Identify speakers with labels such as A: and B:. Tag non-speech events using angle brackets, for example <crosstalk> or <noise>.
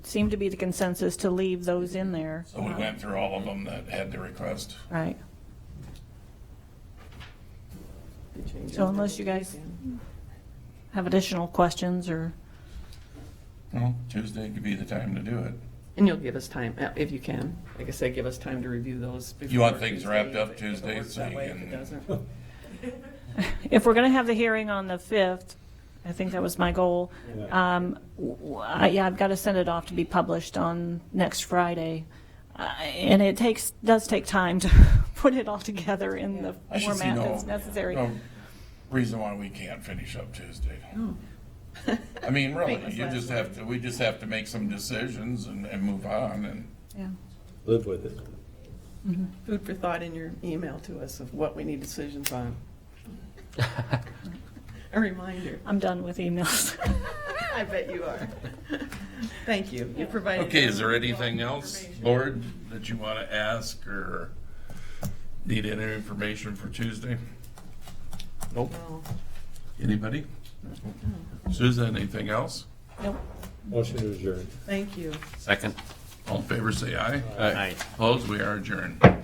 A: seemed to be the consensus to leave those in there,
B: So we went through all of them that had the request.
A: right? So unless you guys have additional questions or, <laughs>
B: Well, Tuesday could be the time to do it.
C: And you'll give us time, uh, if you can. Like I said, give us time to review those.
B: You want
C: before
B: things wrapped up
C: if it- if it
B: Tuesday
C: works
B: so
C: that
B: you
C: way, if
B: can-
C: it doesn't.
A: if we're going to have the hearing on the 5th, I think that was my goal. Um, w- w- I- Yeah, I've got to send it off to be published on next Friday. Uh, And it takes, does take time to <laughs> put it all together in the
B: I should see
A: format
B: Um, no-
A: that's necessary.
B: No reason why we can't finish up Tuesday. I
A: <laughs>
B: mean, really, you just have to, we just have to make some decisions and, and move on and.
A: Yeah.
D: Live with it.
C: Food for thought in your email to us of what we need decisions
B: <laughs>
C: on. A reminder.
A: I'm done with emails. <laughs>
C: I bet
B: <laughs>
C: you are. Thank you. You provided.
B: Okay, is there anything else, Board, that you want to ask or need any information for Tuesday? Nope.
C: No.
B: Anybody?
A: Mm-hmm.
B: Susan, anything else?
A: Nope.
D: Motion to adjourn.
C: Thank you.
E: Second.
B: All in favor, say aye.
E: Aye.
B: Opposed, we are adjourned.